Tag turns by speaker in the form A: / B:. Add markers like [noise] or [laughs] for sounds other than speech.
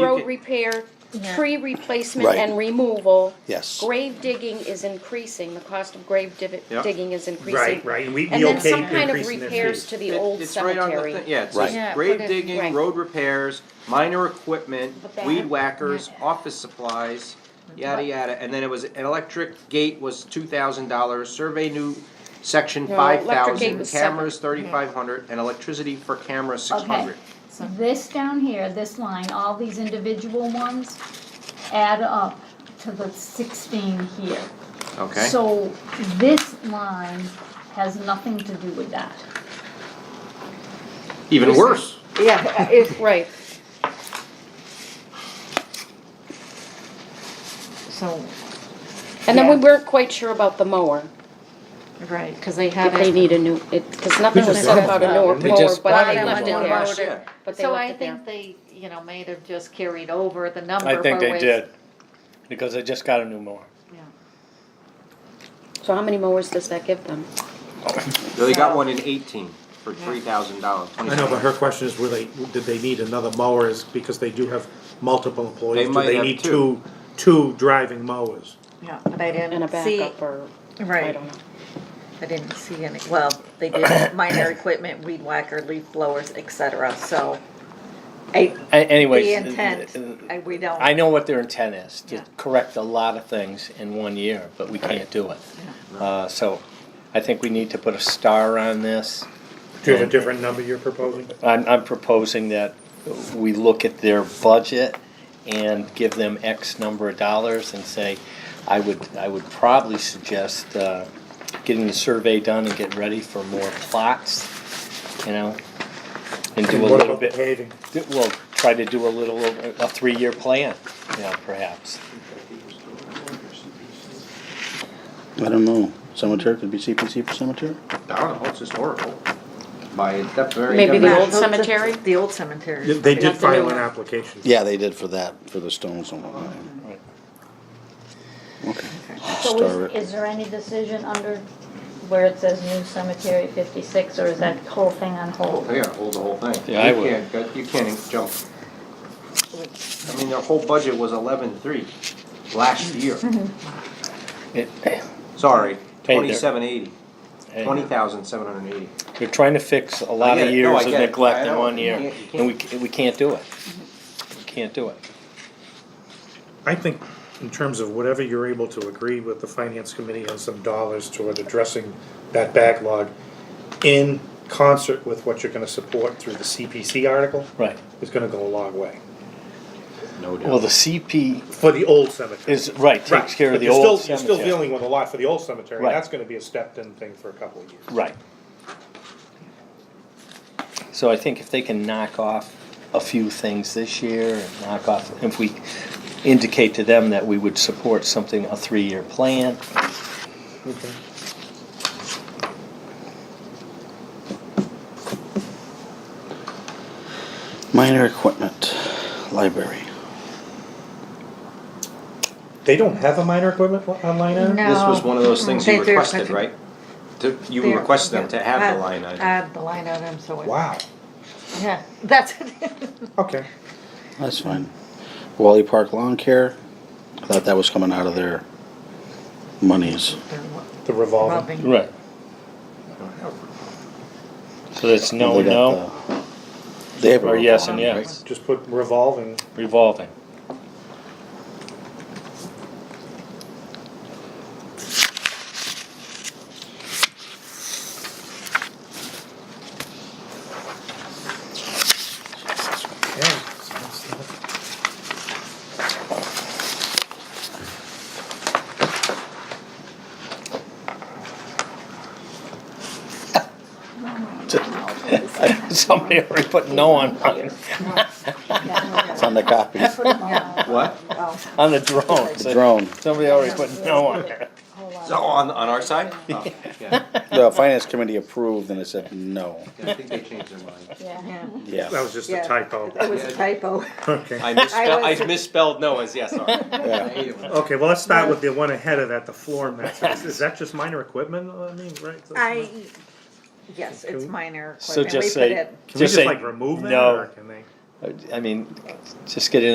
A: road repair, tree replacement
B: Right.
A: and removal.
B: Yes.
A: Grave digging is increasing, the cost of grave div-
C: Yeah.
A: digging is increasing.
D: Right, right, and we,
A: And
D: we
A: then
D: okay
A: some kind of
D: increasing their
A: repairs
D: fees.
A: to the
C: It-
A: old
C: it's right on the
A: cemetery.
C: thing- Yeah, it
B: Right.
C: says
E: Yeah,
C: grave
A: put it- right.
C: digging, road repairs, minor equipment,
A: The bat.
C: weed whackers, office supplies, yada, yada. And then it was, an electric gate was two thousand dollars, survey new section
A: No, electric
C: five
A: gate
C: thousand,
A: was separate.
C: cameras thirty-five hundred, and electricity for cameras six
F: Okay,
C: hundred.
F: so this down here, this line, all these individual ones add up to the sixteen here.
C: Okay,
F: So this line has nothing to do with that.
C: even worse.
A: Yeah, it, right.
E: So,
A: And then we
E: Yeah.
A: weren't quite sure about the mower,
E: right, because they
A: if
E: have
A: they
E: it.
A: need a new, it, cause nothing was
D: just
A: said
D: left
A: about
D: it
A: a
D: out,
A: newer
D: didn't we?
A: mower,
D: Just
A: but
E: bought
A: I
E: it.
A: left it
E: One
A: there.
E: mower.
C: Yeah.
A: But they
E: So
A: left
E: I
A: it there.
E: think they, you know, may have just carried over the number.
G: I think
E: for
G: they
E: which-
G: did, because they just got a new mower.
E: Yeah.
A: So how many mowers does that give them?
C: They got one in eighteen for three thousand dollars.
D: I know, but her question is, were they, did they need another mower is because they do have multiple
C: They
D: employees, do
C: might
D: they
C: have
D: need
C: two.
D: two, two driving mowers?
E: Yeah, but I
A: And a
E: didn't see,
A: backup or, I
H: Right,
A: don't know.
H: I didn't see any, well, they did [coughs] minor equipment, weed whacker, leaf blowers, et cetera, so. I,
G: A- Anyways.
H: the
G: uh,
H: intent,
G: uh,
H: I, we don't.
G: I know what their intent is, to
E: Yeah.
G: correct a lot of things in one year, but we can't do it. Uh, so I think we need to put a star on this.
D: Do you have a different number you're proposing?
G: I'm, I'm proposing that we look at their budget and give them X number of dollars and say, I would, I would probably suggest, uh, getting the survey done and get ready for more plots, you know? And do a
D: What
G: little
D: about
G: bit.
D: paving?
G: We'll try to do a little, a three-year plan, you know, perhaps.
B: I don't know. Cemetery could be CPC for cemetery?
C: I don't know, it's historical. By that very.
A: Maybe the
C: definition.
A: old cemetery?
H: The old cemetery.
D: They did
A: That's the new
D: file
A: one.
D: an application.
B: Yeah, they did for that, for the stones and whatnot.
G: Right.
B: Okay. Star
F: So
B: it.
F: is, is there any decision under where it says new cemetery fifty-six, or is that whole thing on hold?
C: Yeah, hold the whole thing.
G: Yeah, I
C: You
G: would.
C: can't go- You can't jump. I mean, their whole budget was eleven-three last year. [laughs]
G: It-
C: Sorry,
G: they're-
C: twenty-seven eighty, twenty thousand seven hundred and eighty.
G: You're trying to fix a lot
C: I get
G: of
C: it. No, I
G: years of
C: get it. I
G: neglect in
C: know.
G: one
C: You
G: year,
C: can't- you
G: and we, c- we can't do it. We Can't do it.
D: I think in terms of whatever you're able to agree with the finance committee on some dollars toward addressing that backlog in concert with what you're gonna support through the CPC article
G: Right.
D: is gonna go a long way
B: No doubt.
G: Well, the CP
D: for the old cemetery.
G: is, right,
D: Right,
G: takes care
D: but
G: of the
D: you're still-
G: old
D: You're still
G: cemetery.
D: dealing with a lot for the old cemetery,
G: Right.
D: that's gonna be a stepped-in thing for a couple of years.
G: Right. So I think if they can knock off a few things this year, and knock off, if we indicate to them that we would support something, a three-year plan,
B: Minor equipment, library.
D: They don't have a minor equipment li- on line item?
C: This was one of those things
H: They-
C: you
H: they're
C: requested,
H: such a-
C: right? To- You
H: There,
C: requested them to
H: yeah.
C: have
H: Add-
C: the line item.
H: Add the line item, so it.
D: Wow,
H: Yeah, [laughs] that's,
D: okay.
B: That's fine. Wally Park Lawn Care, I thought that was coming out of their monies.
D: The revolving.
H: rubbing.
G: right. So that's no,
B: They got
G: no,
B: the- They have a
G: or yes and
B: revolving, right?
G: yes,
D: Just put revolving,
G: revolving. [laughs]
D: yeah.
G: Somebody already put no on, [laughs] on-
B: It's on the
G: [laughs]
B: copy,
H: Oh.
C: What?
G: on the drone.
B: the drone.
G: Somebody already put no on there.
C: So on, on our [laughs] side? Oh, yeah.
B: The finance committee approved and it said no.
C: I think they changed their mind.
H: Yeah,
D: That
B: Yeah,
D: was just a
H: Yeah.
D: typo.
H: [laughs] that was a typo.
D: Okay.
C: I misspelled,
H: I was-
C: I misspelled no as yes, sorry. [laughs] Oh, I hate it when-
D: Okay, well, let's start with the one ahead of that, the floor mats. Is- Is that just minor equipment? I mean, right?
H: I, yes, it's
D: Can-
H: minor equipment.
G: So
H: We
G: just
H: put
G: say,
H: it-
D: Can we
G: just
D: just
G: say,
D: like remove that? or
G: no.
D: Can they?
G: I mean, just get it in